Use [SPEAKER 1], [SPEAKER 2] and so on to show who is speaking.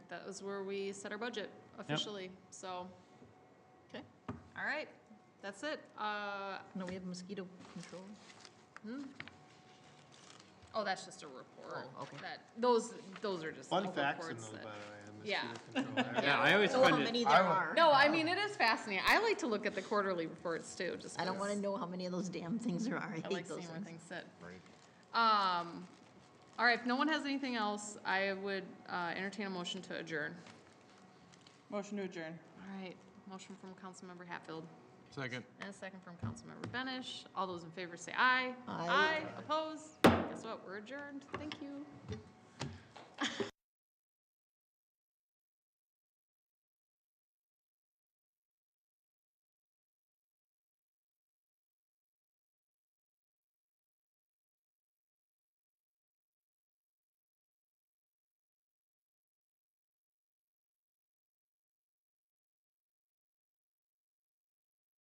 [SPEAKER 1] that was where we set our budget officially, so.
[SPEAKER 2] Okay.
[SPEAKER 1] All right, that's it. Uh,
[SPEAKER 2] No, we have mosquito control.
[SPEAKER 1] oh, that's just a report.
[SPEAKER 2] Oh, okay.
[SPEAKER 1] That, those, those are just
[SPEAKER 3] Fun
[SPEAKER 1] little
[SPEAKER 3] facts in
[SPEAKER 1] reports
[SPEAKER 3] those, by
[SPEAKER 1] that-
[SPEAKER 3] the way.
[SPEAKER 1] Yeah.
[SPEAKER 3] on mosquito control.
[SPEAKER 4] Yeah, I always
[SPEAKER 2] I don't know how
[SPEAKER 4] find it,
[SPEAKER 2] many
[SPEAKER 3] I
[SPEAKER 2] there
[SPEAKER 3] would-
[SPEAKER 2] are.
[SPEAKER 1] No, I mean, it is fascinating. I like to look at the quarterly reports too, just.
[SPEAKER 2] I don't
[SPEAKER 1] 'cause
[SPEAKER 2] want to know how many of those damn things there are. I
[SPEAKER 1] I
[SPEAKER 2] hate
[SPEAKER 1] like
[SPEAKER 2] those
[SPEAKER 1] seeing where
[SPEAKER 2] things.
[SPEAKER 1] things sit. Um, all right, if no one has anything else, I would, uh, entertain a motion to adjourn.
[SPEAKER 5] Motion to adjourn.
[SPEAKER 1] All right, motion from Councilmember Hatfield.
[SPEAKER 4] second.
[SPEAKER 1] And a second from Councilmember Benish. All those in favor say aye.
[SPEAKER 2] Aye.
[SPEAKER 1] Aye, opposed? Guess what, we're adjourned. Thank you.